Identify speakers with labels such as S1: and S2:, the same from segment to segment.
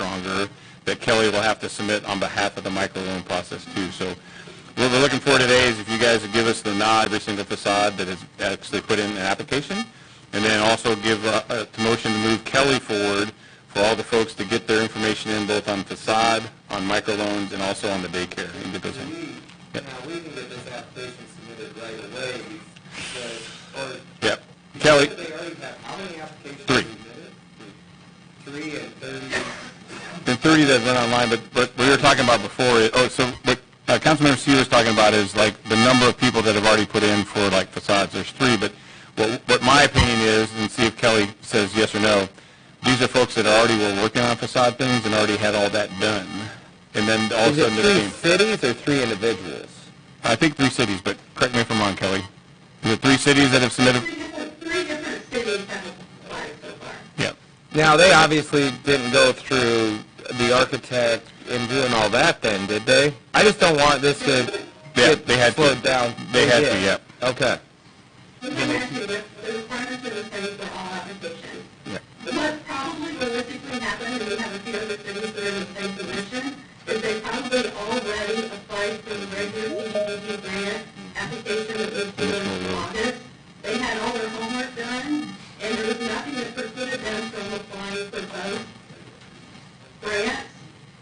S1: longer that Kelly will have to submit on behalf of the microloan process too. So what we're looking for today is if you guys would give us the nod, every single facade that has actually put in an application, and then also give uh, a to motion to move Kelly forward for all the folks to get their information in both on facade, on microloans, and also on the daycare. and get those in.
S2: Now, we can get this application submitted right away, because, or,
S1: Yep. Kelly,
S2: they already have, how many applications
S1: Three.
S2: submitted? Three and thirty,
S1: the 30 that went online, but, but we were talking about before, it- oh, so what uh, Councilmember Seaver was talking about is like the number of people that have already put in for like facades, there's three, but what, what my opinion is, and see if Kelly says yes or no, these are folks that already were working on facade things and already had all that done. And then all of a
S2: is it
S1: sudden there
S2: three
S1: came,
S2: cities or three individuals?
S1: I think three cities, but correct me if I'm wrong, Kelly. Is it three cities that have submitted?
S3: Three different, three different cities have applied so far.
S1: Yeah.
S2: Now, they obviously didn't go through the architect and doing all that then, did they? I just don't want this to
S1: Yeah,
S2: get
S1: they had to.
S2: slowed down.
S1: They had to,
S2: Yeah.
S1: yep.
S2: Okay.
S3: But they had to, the, the requirements of the cities for all applications. What probably realistically happened, and we have a few other cities that are in the same position, is they probably already applied for the regular CDBG grant application that was submitted in August. They had all their homework done, and there was nothing that precluded them from applying for both grants.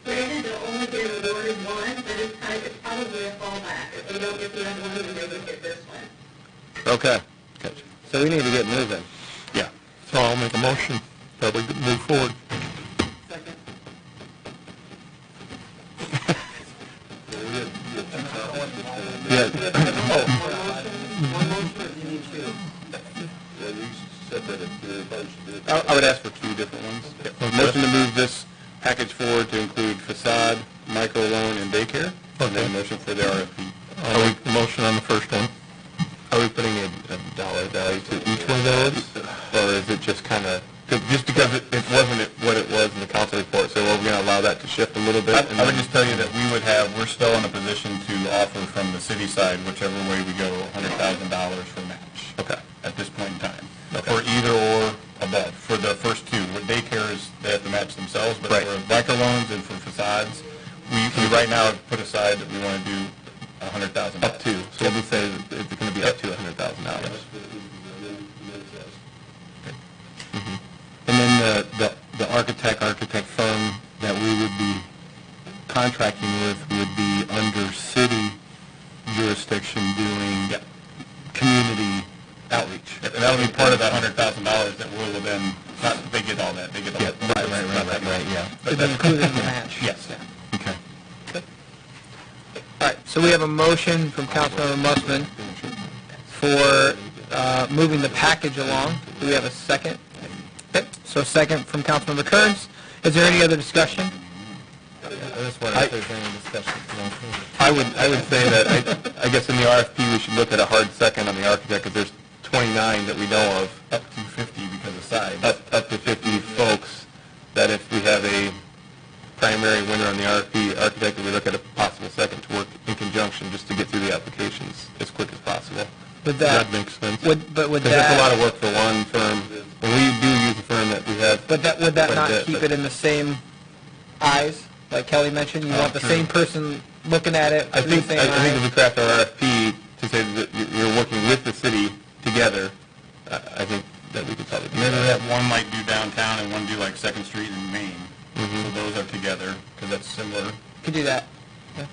S3: Granted, they'll only get awarded one, but it's kind of, it's probably a fallback. If they don't get the other one, then they would get this one.
S2: Okay. So we need to get moving.
S1: Yeah.
S2: So I'll make a motion that we move forward.
S1: I I would ask for two different ones. A Motion to move this package forward to include facade, micro loan, and daycare, and then a motion for the RFP.
S2: I'll make the motion on the first one. Are we putting a, a dollar value to each one of those? Or is it just kind of, just because it, it wasn't it- what it was in the council report, so we're going to allow that to shift a little bit?
S1: I
S2: and
S1: I would
S2: then-
S1: just tell you that we would have, we're still in a position to offer from the city side, whichever way we go, $100,000 for match.
S2: Okay.
S1: At this point in time. For either or above, for the first two. What daycare is, they have to match themselves, but
S2: Right.
S1: for micro loans and for facades, we, we right now have put aside that we want to do 100,000.
S2: Up to, so we'll just say that it's going to be up to a hundred thousand dollars. And then the, the, the architect, architect firm that we would be contracting with would be under city jurisdiction doing
S1: Yep.
S2: community outreach.
S1: And that'll be part of that hundred thousand dollars that will then, not, they get all that, they get all
S2: Yeah,
S1: that.
S2: right, right, right, right, right, yeah.
S1: But that's-
S2: including the match.
S1: Yes.
S2: Okay. All right, so we have a motion from Councilmember Mussman for uh, moving the package along. Do we have a second? Okay, so a second from Councilmember Kearns. Is there any other discussion? I would, I would say that, I, I guess in the RFP, we should look at a hard second on the architect, because there's 29 that we know of,
S1: Up to fifty because of size.
S2: up, up to 50 folks, that if we have a primary winner on the RFP architect, that we look at a possible second to work in conjunction, just to get through the applications as quick as possible. Would that... make sense? Would, but would that... Because that's a lot of work for one firm, and we do use a firm that we have... But that, would that not keep it in the same eyes, like Kelly mentioned? You want the same person looking at it I think, I I think if we craft our RFP to say that you- you're working with the city together, I I think that we could probably do
S1: Maybe
S2: that.
S1: we have one like do downtown and one do like Second Street in Maine. So
S2: Mm-hmm.
S1: those are together, because that's similar.
S2: Could do that. Because,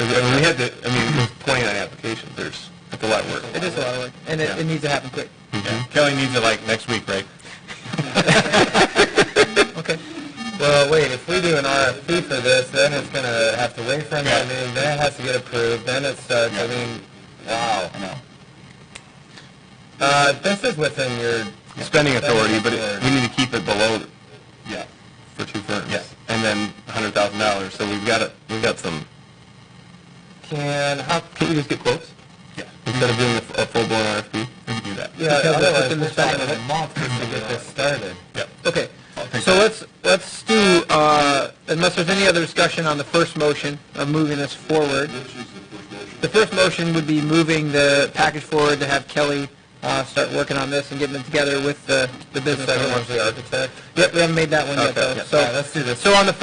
S2: I mean, we had to, I mean, with 29 applications, there's, that's a lot of work. Mm-hmm. It is a lot of work, and
S1: it- it
S2: needs to happen quick.
S1: Yeah. Kelly needs it like next week, right?
S2: Okay. Well, wait, if we do an RFP for this, then it's going to have to wait for another
S1: Yeah.
S2: meeting, then it has to get approved, then it starts,
S1: Yeah.
S2: I mean, wow.
S1: I know.
S2: Uh, this is within your... Spending
S1: authority, but it- we
S2: need to keep it below
S1: Yeah.
S2: for two firms.
S1: Yeah.
S2: And then hundred thousand dollars, so we've got, a we've got some... Can, how, can we just get quotes?
S1: Yeah.
S2: Instead of doing a f- a full-blown RFP?
S1: We can do that.
S2: Yeah, otherwise, we're talking a month to get this started.
S1: Yep.
S2: Okay,
S1: I'll take
S2: so
S1: that.
S2: let's, let's do, uh, unless there's any other discussion on the first motion of moving this forward. The first motion would be moving the package forward to have Kelly, uh, start working on this and getting it together with the, the business. The second one's the architect? Yep, we haven't made that one yet,
S1: Okay,
S2: though,
S1: yeah.
S2: so.
S1: All right, let's
S2: do this. So on the